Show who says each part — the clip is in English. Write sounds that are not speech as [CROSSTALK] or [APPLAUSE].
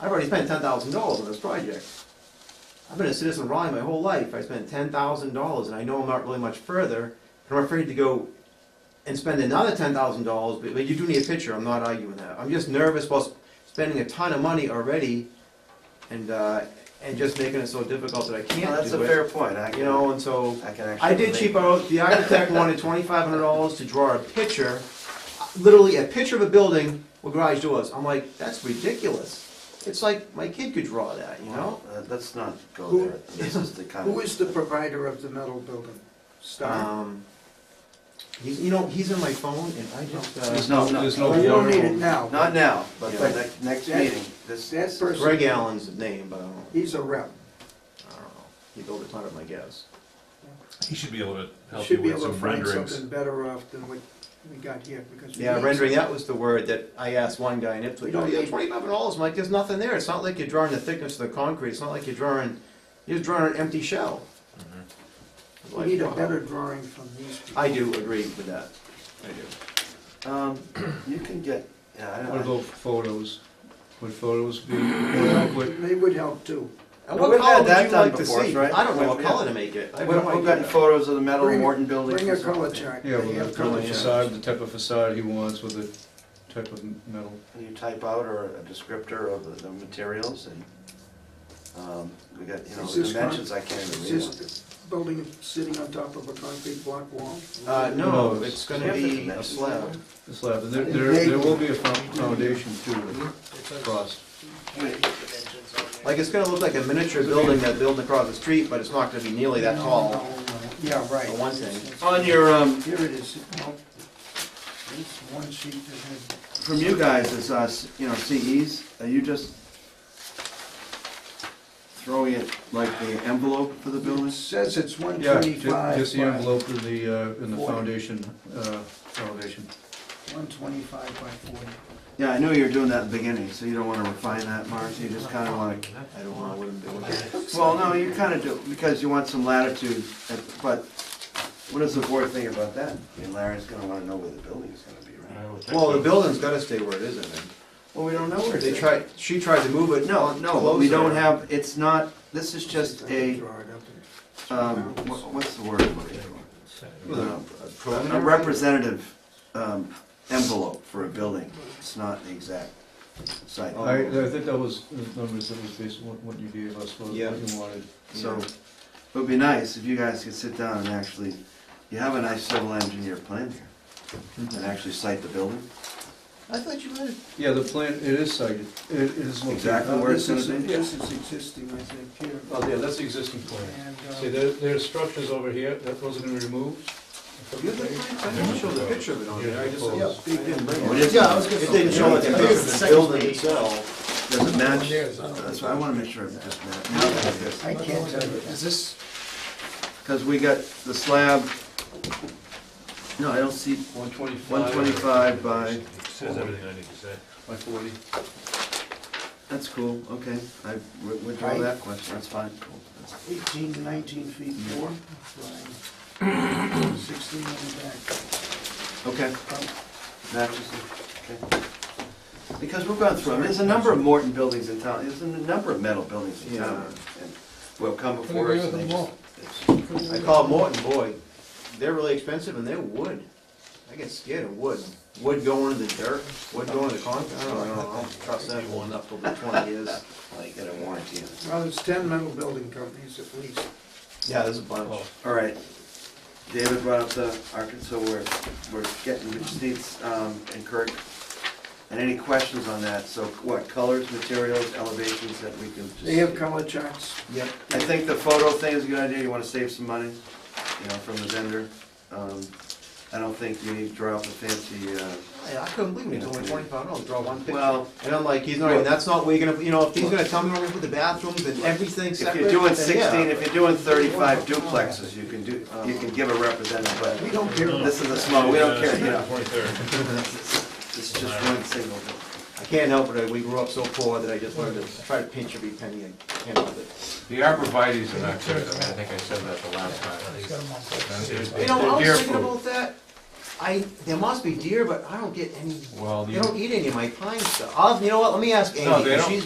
Speaker 1: I've already spent ten thousand dollars on this project. I've been a citizen of Raleigh my whole life, I spent ten thousand dollars, and I know I'm not really much further, and I'm afraid to go and spend another ten thousand dollars, but, but you do need a picture, I'm not arguing that, I'm just nervous about sp- spending a ton of money already, and, uh, and just making it so difficult that I can't do it.
Speaker 2: Well, that's a fair point, I
Speaker 1: You
Speaker 2: can,
Speaker 1: know, and so.
Speaker 2: I can actually.
Speaker 1: I did cheap out, the architect wanted twenty-five hundred dollars to draw a picture, literally a picture of a building with garage doors. I'm like, that's ridiculous. It's like, my kid could draw that, you know?
Speaker 2: Uh, Let's not go
Speaker 3: Who-
Speaker 2: there, this is the kind of.
Speaker 3: Who is the provider of the metal building? Star?
Speaker 1: Um, he's, you know, he's in my phone and I just,
Speaker 4: There's
Speaker 1: uh,
Speaker 4: no, there's no.
Speaker 3: Well, Oh, you don't need it now.
Speaker 2: Not now, but for
Speaker 1: Yeah.
Speaker 2: next, next
Speaker 3: That-
Speaker 2: meeting, this.
Speaker 3: That person.
Speaker 1: Greg Allen's name, but I don't,
Speaker 3: He's a rep.
Speaker 1: I don't know. He built a ton of my guess.
Speaker 4: He should be able to help you
Speaker 3: Should be
Speaker 4: with
Speaker 3: able to
Speaker 4: some
Speaker 3: find
Speaker 4: renderings.
Speaker 3: something better off than what we got here because. we
Speaker 1: Yeah,
Speaker 3: need-
Speaker 1: rendering, that was the word that I asked one guy in Ipswich,
Speaker 3: You
Speaker 1: oh,
Speaker 3: don't
Speaker 1: yeah,
Speaker 3: need-
Speaker 1: twenty-five hundred dollars, I'm like, there's nothing there, it's not like you're drawing the thickness of the concrete, it's not like you're drawing, you're just drawing an empty shell. I'm
Speaker 3: We
Speaker 1: like,
Speaker 3: need a
Speaker 1: wow.
Speaker 3: better drawing from these people.
Speaker 1: I do agree with that, I do.
Speaker 2: Um, you can get, yeah, I
Speaker 5: What
Speaker 2: don't know.
Speaker 5: about photos? Would photos be more adequate?
Speaker 3: They would help too.
Speaker 1: And
Speaker 2: No,
Speaker 1: what
Speaker 2: we've had
Speaker 1: color would
Speaker 2: that
Speaker 1: you
Speaker 2: done
Speaker 1: like to
Speaker 2: before,
Speaker 1: see?
Speaker 2: right?
Speaker 1: I don't know what
Speaker 2: Yeah.
Speaker 1: color to make it, I have
Speaker 2: We've
Speaker 1: no
Speaker 2: we've gotten
Speaker 1: idea.
Speaker 2: photos of the metal
Speaker 3: Bring-
Speaker 2: Morton building.
Speaker 3: Bring a color chart.
Speaker 5: Yeah,
Speaker 3: They
Speaker 5: with
Speaker 3: have
Speaker 5: the color
Speaker 3: color charts.
Speaker 5: facade, the type of facade he wants, with the type of metal.
Speaker 2: You type out or a descriptor of the, the materials and, um, we got, you know,
Speaker 3: Is
Speaker 2: the
Speaker 3: this con-
Speaker 2: dimensions I can't
Speaker 3: Is
Speaker 2: even read.
Speaker 3: this the building sitting on top of a concrete block wall?
Speaker 1: Uh, no,
Speaker 5: No,
Speaker 1: it's gonna
Speaker 2: it's-
Speaker 1: be a slab.
Speaker 5: The slab, and there, there there will be a fo- foundation too, across.
Speaker 1: Like, it's gonna look like a miniature building that building across the street, but it's not gonna be nearly that tall,
Speaker 3: Yeah,
Speaker 1: for
Speaker 3: right.
Speaker 1: one thing.
Speaker 2: On your, um,
Speaker 3: Here it is. Nope. This one sheet that
Speaker 2: from you guys is, uh, s- you know, CEs, are you just throwing it like the envelope for the
Speaker 3: had, it
Speaker 2: building?
Speaker 3: says it's one
Speaker 5: Yeah, ju-
Speaker 3: twenty-five.
Speaker 5: just the envelope of the, uh, in the
Speaker 3: Forty.
Speaker 5: foundation, uh, elevation.
Speaker 3: One twenty-five by forty.
Speaker 2: Yeah, I knew you were doing that in the beginning, so you don't wanna refine that, Mark, you just kinda wanna
Speaker 1: I don't know what I'm doing.
Speaker 2: Well, no, you kind of do, because you want some latitude, but what does the board think about that? I mean, Larry's gonna wanna know where the building's gonna be, right?
Speaker 1: Well, [LAUGHS] the building's gotta stay where it is, I think.
Speaker 2: Well, we don't know where
Speaker 1: They tried, she tried to move it.
Speaker 2: No, no, but we don't have, it's not, this is just
Speaker 3: I can
Speaker 2: a,
Speaker 3: draw it up and-
Speaker 2: um, wha- what's the word? I'm looking for? Um, A representative, um, envelope for a building, it's not the exact site.
Speaker 5: I, I think that was, the numbers that was based on what- what you gave us, what what
Speaker 1: Yeah.
Speaker 5: you wanted.
Speaker 2: So, it would be nice if you guys could sit down and actually, you have a nice civil engineer plan here, and actually cite the building.
Speaker 1: I thought you had.
Speaker 5: Yeah, the plan, it is cited, it it is located.
Speaker 2: Exactly
Speaker 3: Uh,
Speaker 2: where it's
Speaker 3: This
Speaker 2: gonna
Speaker 3: is,
Speaker 2: be.
Speaker 3: this is existing, I think, here.
Speaker 5: Oh, yeah, that's the existing plan.
Speaker 3: And, uh,
Speaker 5: See, there, there are structures over here, that those are gonna be removed.
Speaker 1: You had the plan, I didn't show the picture of it on there, I just,
Speaker 5: Yeah.
Speaker 1: I didn't bring
Speaker 2: What
Speaker 1: it.
Speaker 2: is it?
Speaker 1: It didn't show like the picture of the building itself.
Speaker 2: Does it match? That's why I wanna make sure it just matches.
Speaker 3: I can't tell you.
Speaker 6: Is this,
Speaker 2: Cause we got the slab, no, I don't see,
Speaker 4: One twenty-five.
Speaker 2: one twenty-five by,
Speaker 4: Says everything I need to say. By forty.
Speaker 2: that's cool, okay, I wi- withdraw that question, that's fine, cool. that's-
Speaker 3: Eighteen, nineteen feet four. Sixteen on the back.
Speaker 2: Okay, matches, it, okay. Because we've gone through, 'em. there's a number of Morton buildings in town, there's a number of metal buildings in town. and Will come before us. and they just- it's-
Speaker 1: I called Morton, boy, they're really expensive and they're wood. I get scared of wood. Wood going into the dirt, wood going into the concrete, I don't know, I don't- I don't trust that one up till the twenty years.
Speaker 2: Well, you get a warranty on it.
Speaker 3: Well, there's ten metal building companies at least.
Speaker 1: Yeah, there's a bunch.
Speaker 2: All right, David brought up the Arkansas, we're, we're getting, we just need, um, and Kirk, and any questions on that? So what, colors, materials, elevations that we can just?
Speaker 3: They have color charts.
Speaker 1: Yep.
Speaker 2: I think the photo thing is a good idea, you wanna save some money, you know, from the vendor. Um, I don't think you need to draw up a fancy, uh,
Speaker 1: I couldn't believe it, it's only twenty-five dollars, draw one picture.
Speaker 2: well,
Speaker 1: And I'm like, he's not, even. that's not where you're gonna, you know, if he's gonna tell me where to put the bathrooms and everything
Speaker 2: if
Speaker 1: separate.
Speaker 2: you're doing
Speaker 1: then yeah.
Speaker 2: sixteen, if you're doing thirty-five duplexes, you can do, you can give a representative, but
Speaker 3: We don't care.
Speaker 2: this is a small, we don't care, you know.
Speaker 4: Twenty-third.
Speaker 2: This is just one single building.
Speaker 1: I can't help it, we grew up so poor that I just wanted to try to pinch every penny I can of it.
Speaker 7: The arborvitae's are not good, I mean, I think I said that the last time.
Speaker 1: You know, I was thinking about that, I, there must be deer, but I don't get any,
Speaker 7: Well,
Speaker 1: they
Speaker 7: you-
Speaker 1: don't eat any of my pine stuff. I'll, you know what, let me ask Amy,
Speaker 7: No, they
Speaker 1: 'cause
Speaker 7: don't.
Speaker 1: she's